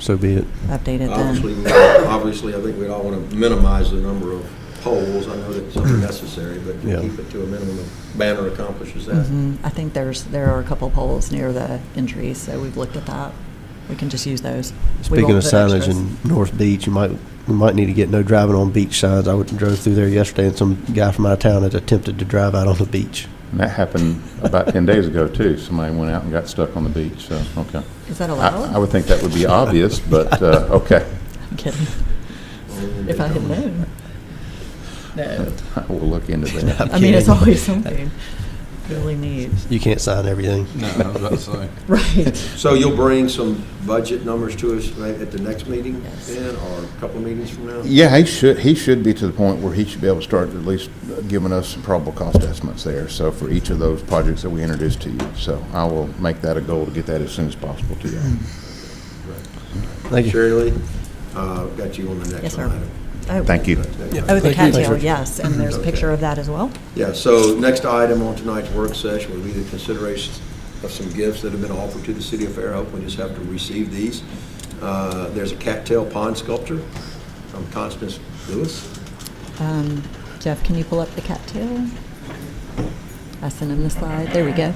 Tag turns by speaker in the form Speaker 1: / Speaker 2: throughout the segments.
Speaker 1: so be it.
Speaker 2: update it
Speaker 3: Obviously,
Speaker 2: then.
Speaker 3: we- obviously, I think we'd all want to minimize the number of polls. I know that's
Speaker 2: Mm-hmm.
Speaker 3: unnecessary, but
Speaker 1: Yeah.
Speaker 3: to keep it to a minimum. Banner accomplishes that.
Speaker 2: Mhm. I think there's, there are a couple poles near the entries, so we've looked at that. We can just use those. We
Speaker 1: Speaking
Speaker 2: won't
Speaker 1: of
Speaker 2: put
Speaker 1: signage
Speaker 2: extras.
Speaker 1: in North Beach, you might, we might need to get no driving on beach signs. I went- drove through there yesterday and some guy from out of town had attempted to drive out on the beach.
Speaker 4: And that happened about 10 days ago, too. Somebody went out and got stuck on the beach, so, okay.
Speaker 2: Is that
Speaker 4: I I
Speaker 2: allowed?
Speaker 4: would think that would be obvious, but, uh, okay.
Speaker 2: I'm kidding. Mm-hmm.
Speaker 3: Um,
Speaker 2: If I had known. No.
Speaker 4: We'll look into that.
Speaker 2: I mean, it's
Speaker 1: kidding.
Speaker 2: always something really neat.
Speaker 1: You can't sign everything.
Speaker 5: No, I was about to say.
Speaker 2: Right.
Speaker 3: So you'll bring some budget numbers to us right at the next meeting
Speaker 2: Yes.
Speaker 3: then, or a couple of meetings from now?
Speaker 4: Yeah, he should, he should be to the point where he should be able to start at least giving us some probable cost estimates there, so for each of those projects that we introduced to you. So I will make that a goal to get that as soon as possible to you.
Speaker 1: Thank you.
Speaker 3: Shirley, uh, got you on the next
Speaker 2: Yes, sir.
Speaker 3: item.
Speaker 2: Oh.
Speaker 4: Thank you.
Speaker 3: Next
Speaker 2: Oh,
Speaker 3: item.
Speaker 2: the
Speaker 1: Thank you.
Speaker 2: cattail, yes, and there's a picture of that as well.
Speaker 3: Yeah, so next item on tonight's work session will be the consideration of some gifts that have been offered to the city of Fairhope. We just have to receive these. Uh, There's a cattail pond sculpture from Constance Lewis.
Speaker 2: Um, Jeff, can you pull up the cattail? I sent him the slide. There we go.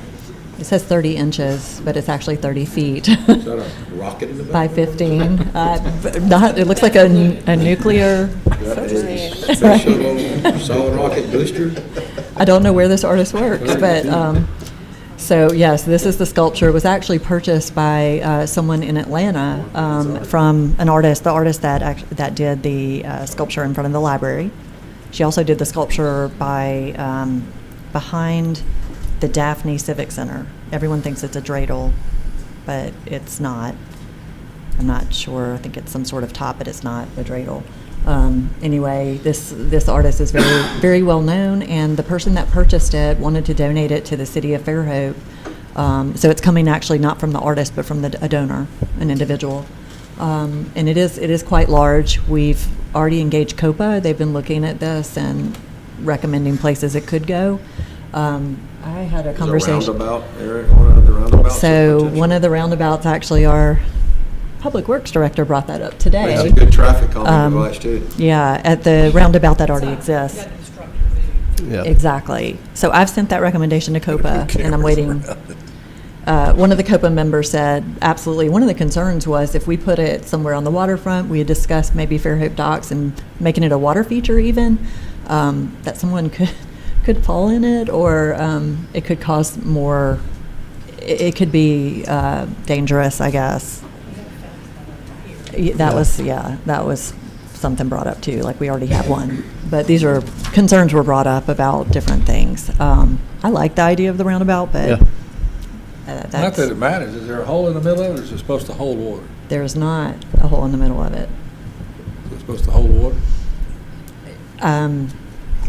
Speaker 2: It says 30 inches, but it's actually 30 feet
Speaker 3: Is that a rocket in the back?
Speaker 2: by 15. Uh, b- Not, it looks like a n- a nuclear,
Speaker 3: That is a special solid rocket booster.
Speaker 2: I don't know where this artist works, but, um, so yes, this is the sculpture. It was actually purchased by uh, someone in Atlanta um, from an artist, the artist that, act- that did the uh, sculpture in front of the library. She also did the sculpture by, um, behind the Daphne Civic Center. Everyone thinks it's a dreidel, but it's not. I'm not sure. I think it's some sort of top, but it's not a dreidel. Um, anyway, this this artist is very very well known, and the person that purchased it wanted to donate it to the city of Fairhope. Um, so it's coming actually not from the artist, but from the, a donor, an individual, um, and it is it is quite large. We've already engaged COPA. They've been looking at this and recommending places it could go. Um, I had a
Speaker 3: There's a
Speaker 2: conversation.
Speaker 3: roundabout, Eric, one of the roundabouts.
Speaker 2: So one of the roundabouts, actually, our Public Works Director brought that up today.
Speaker 3: It's a good traffic calming
Speaker 2: Um,
Speaker 3: device, too.
Speaker 2: Yeah, at the roundabout that already exists.
Speaker 1: Yeah.
Speaker 2: Exactly. So I've sent that recommendation to COPA, and I'm waiting. Uh, One of the COPA members said, absolutely, one of the concerns was if we put it somewhere on the waterfront, we had discussed maybe Fairhope Docks and making it a water feature even, um, that someone could, could fall in it, or um, it could cause more, it it could be uh, dangerous, I guess. Y- That was, yeah, that was something brought up too, like we already have one. But these are, concerns were brought up about different things. Um, I like the idea of the roundabout, but
Speaker 1: Yeah.
Speaker 2: uh,
Speaker 5: Not that
Speaker 2: that's,
Speaker 5: it matters. Is there a hole in the middle of it, or is it supposed to hold water?
Speaker 2: there's not a hole in the middle of it.
Speaker 5: Is it supposed to hold water?
Speaker 2: Um,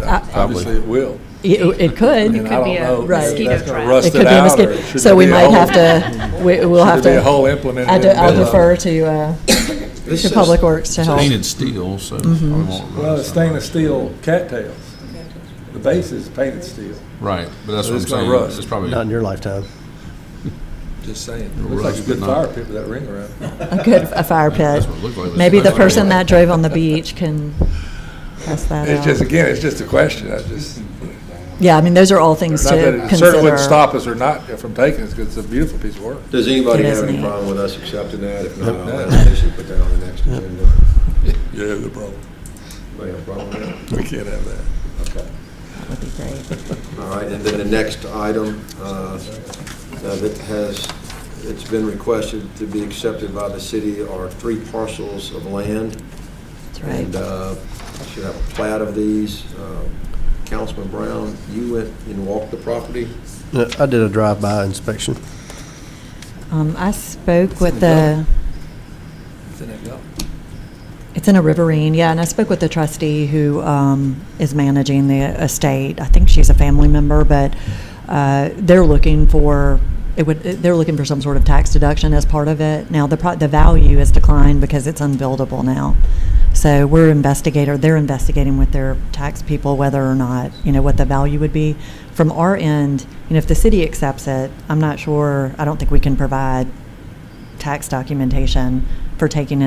Speaker 5: Obviously, it will.
Speaker 2: It it could.
Speaker 5: And I
Speaker 6: could be
Speaker 5: don't
Speaker 6: a
Speaker 5: know if
Speaker 2: mosquito
Speaker 5: that's gonna
Speaker 6: trap.
Speaker 5: rust
Speaker 2: It could
Speaker 5: it
Speaker 2: be a
Speaker 5: out, or
Speaker 2: mosquito.
Speaker 5: should
Speaker 2: So
Speaker 5: there
Speaker 2: we
Speaker 5: be a
Speaker 2: might
Speaker 5: hole?
Speaker 2: have to, we- we'll have
Speaker 5: Should
Speaker 2: to.
Speaker 5: there be a hole implemented
Speaker 2: I
Speaker 5: in
Speaker 2: do-
Speaker 5: the
Speaker 2: I'll
Speaker 5: middle of it?
Speaker 2: defer to, uh,
Speaker 3: This
Speaker 2: to
Speaker 3: says-
Speaker 2: Public Works to help.
Speaker 7: Painted steel, so. we won't
Speaker 5: uh, Well,
Speaker 7: rust
Speaker 5: it's stainless steel cattails. The base is painted steel.
Speaker 7: Right, but that's
Speaker 5: So
Speaker 7: what
Speaker 5: it's
Speaker 7: I'm
Speaker 5: gonna
Speaker 7: saying.
Speaker 5: rust.
Speaker 7: It's probably,
Speaker 1: Not in your lifetime.
Speaker 5: Just saying.
Speaker 7: It'll
Speaker 5: Looks like a
Speaker 7: rust,
Speaker 5: good
Speaker 7: but not-
Speaker 5: fire pit with that ring around it.
Speaker 2: A good, a fire pit.
Speaker 7: that's what it looked like.
Speaker 2: Maybe the
Speaker 7: That's what it
Speaker 2: person that
Speaker 7: looked
Speaker 2: drove on the beach can test that
Speaker 5: It's just,
Speaker 2: out.
Speaker 5: again, it's just a question. I just,
Speaker 2: Yeah, I mean, those are all things
Speaker 5: not that
Speaker 2: to
Speaker 5: it certainly wouldn't
Speaker 2: consider.
Speaker 5: stop us or not from taking it, because it's a beautiful piece of work.
Speaker 3: Does anybody
Speaker 2: It
Speaker 3: have
Speaker 2: is
Speaker 3: any
Speaker 2: neat.
Speaker 3: problem with us accepting that? If not, I'll ask Casey to put that on the next agenda.
Speaker 5: Yeah, the problem.
Speaker 3: Anybody have a problem with that?
Speaker 5: We can't have that.
Speaker 3: Okay.
Speaker 2: That would be great.
Speaker 3: All right, and then the next item uh, uh, that has, it's been requested to be accepted by the city are three parcels of land.
Speaker 2: That's
Speaker 3: And
Speaker 2: right.
Speaker 3: uh, I should have a plat of these. Uh, Councilman Brown, you went and walked the property.
Speaker 1: Uh, I did a drive-by inspection.
Speaker 2: Um, I spoke with the,
Speaker 5: It's in that gulf.
Speaker 2: it's in a riverine, yeah, and I spoke with the trustee who, um, is managing the estate. I think she's a family member, but, uh, they're looking for, it would, they're looking for some sort of tax deduction as part of it. Now, the pro, the value has declined because it's unbuildable now. So we're investigator, they're investigating with their tax people whether or not, you know, what the value would be. From our end, you know, if the city accepts it, I'm not sure, I don't think we can provide tax documentation for taking